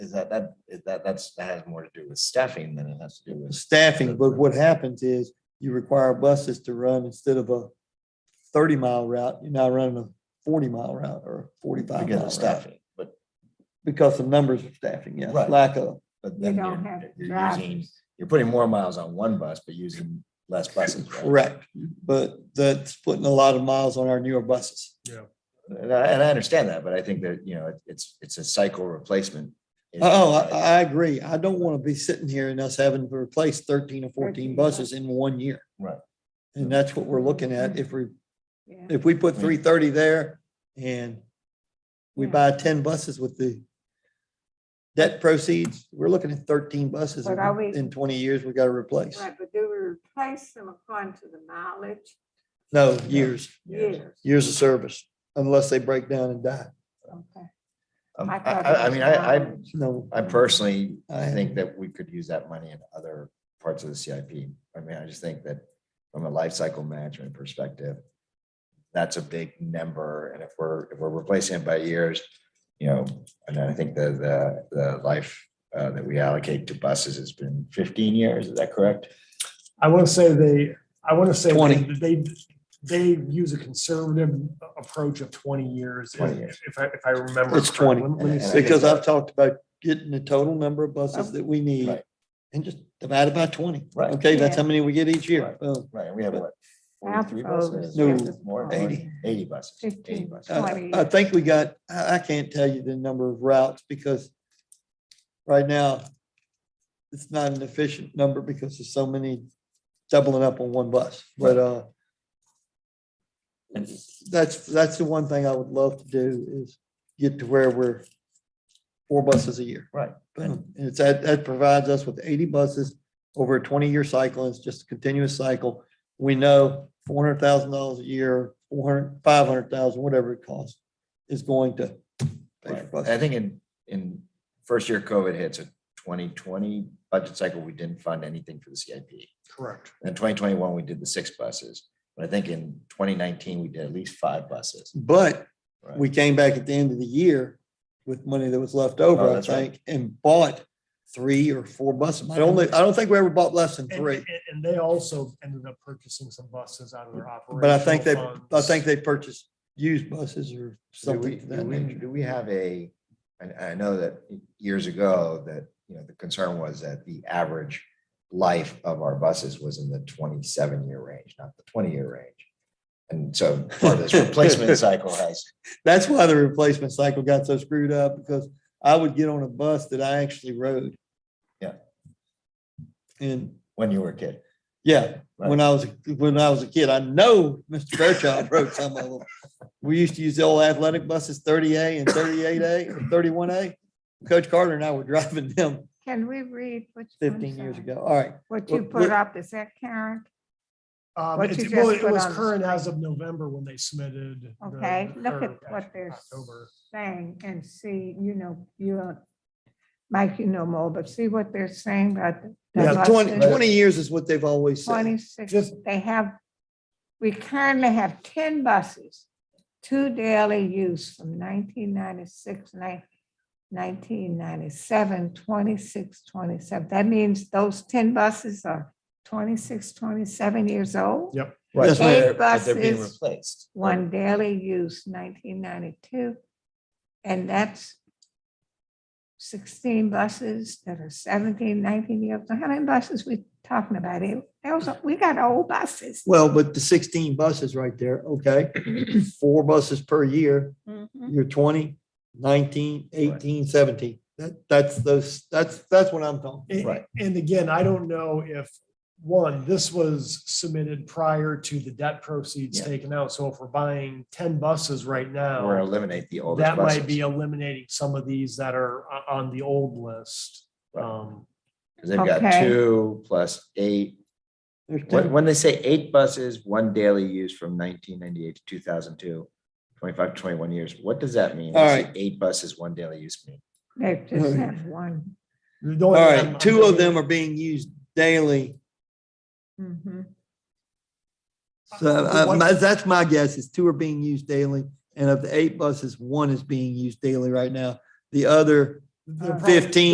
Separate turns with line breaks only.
is that, that, is that, that's, that has more to do with staffing than it has to do with.
staffing, but what happens is you require buses to run instead of a thirty mile route, you're now running a forty mile route or forty-five
Because
mile
of
route.
staffing, but,
Because of numbers of staffing, yes,
Right.
lack of,
but
You
then
don't have
you're, you're using, you're putting more miles on one bus, but using less buses. right?
correct. But that's putting a lot of miles on our newer buses.
And I, and I understand that, but I think that, you know, it- it's, it's a cycle replacement. issue,
Oh, I,
right?
I agree. I don't want to be sitting here and us having to replace thirteen or fourteen
13
buses in one year.
Right.
And that's what we're looking at. If we,
Yeah.
if we put
Yeah.
three thirty there and we
Yeah.
buy ten buses with the debt proceeds, we're looking at thirteen buses
But are
in
we-
in twenty years we got to replace.
Right, but do we replace them according to the mileage?
No, years,
Yeah.
years of service, unless they break down and die.
Okay.
Um, I,
I thought
I, I
it
mean,
was
I, I,
mileage.
No,
I personally
I-
think that we could use that money in other parts of the CIP. I mean, I just think that from a life cycle management perspective, that's a big number. And if we're, if we're replacing it by years, you know, and I think the, the, the life uh, that we allocate to buses has been fifteen years. Is that correct?
I want to say they, I want to say
20.
they, they use a conservative approach of twenty years.
20 years.
If I, if I remember.
It's 20.
correctly. Let me- let me see.
because I've talked about getting the total number of
Oh.
buses that we need
Right.
and just divide it by twenty.
Right.
Okay, that's
Yeah.
how many we get each year.
Right.
Boom.
Right, and we have what?
Half
43
of those
buses?
No,
More, more,
80.
eighty buses. 80
15.
buses.
Uh, I
Twenty
I
years.
think we got, I, I can't tell you the number of routes because right now it's not an efficient number because there's so many doubling up on one bus, but, uh,
And-
that's, that's the one thing I would love to do is get to where we're four buses a year.
Right.
Boom. And it's, that, that provides us with eighty buses over a twenty-year cycle. It's just a continuous cycle. We know four hundred thousand dollars a year, four hundred, five hundred thousand, whatever it costs, is going to pay for
Right. I
buses.
think in, in first year COVID hits a twenty twenty budget cycle, we didn't fund anything for the CIP.
Correct.
In twenty twenty one, we did the six buses, but I think in twenty nineteen, we did at least five buses.
But
Right.
we came back at the end of the year with money that was left
Oh,
over, I
that's right.
think, and bought three or four buses. I don't, think- I don't think we ever bought less than
And,
three,
and- and they also ended up purchasing some buses out of their operation.
but I think they, I think they purchased used buses or
Do we,
something. to
do
that
we,
nature.
do we have a, and I know that years ago that, you know, the concern was that the average life of our buses was in the twenty-seven year range, not the twenty-year range. And so part of this replacement cycle has,
That's why the replacement cycle got so screwed up because I would get on a bus that I actually rode.
Yeah.
And
when you were a kid.
yeah, when I was, when I was a kid, I know Mr. Fairchild rode some of them. We used to use the old athletic buses, thirty A and thirty-eight A, or thirty-one A. Coach Carter and I were driving them
Can we read which? I'm
fifteen years
sorry.
ago. All right.
What you
What-
put
what-
up, is that current?
Um,
What you
it's-
just
well, it
put
was
on the
current as of November when they submitted. the-
Okay, look
or
at what they're
October.
Saying and see, you know, you, Mike, you know more, but see what they're saying about. the- the
Yeah, 20
buses.
20 years is what they've always said.
Twenty-six,
Just-
they have, we currently have ten buses, two daily use from 1996, 1997, 26, 27. That means those ten buses are 26, 27 years old.
Yep.
Right,
Yes,
but
ma'am.
they're- but They're being
Buses,
replaced.
One daily use nineteen ninety-two. And that's sixteen buses that are 17, 19 years. How many buses we talking about? It, those, are- we got old buses.
Well, but the sixteen buses right there, okay, four buses per year.
Mhm.
You're 20, 19, 18, 17. That, that's those, that's, that's what I'm talking.
A-
Right.
And again, I don't know if, one, this was submitted prior to the debt proceeds
Yeah.
taken out. So if we're buying ten buses right
Or
now,
eliminate the oldest
Oh. that
buses.
might be eliminating some of these that are o- on the old list.
Right.
Um,
'Cause They've got
Okay.
two plus eight.
There's two.
When, when they say eight buses, one daily use from nineteen ninety-eight to two thousand two, twenty-five, twenty-one years, what does that mean?
All
What does
right.
Eight buses, one daily use mean.
They just have one.
the only
All
thing I'm- I'm
right, two of
thinking-
them are being used daily.
Mhm.
So uh,
What-
my- that's my guess is two are being used daily. And of the eight buses, one is being used daily right now. The other,
The problem-
Fifteen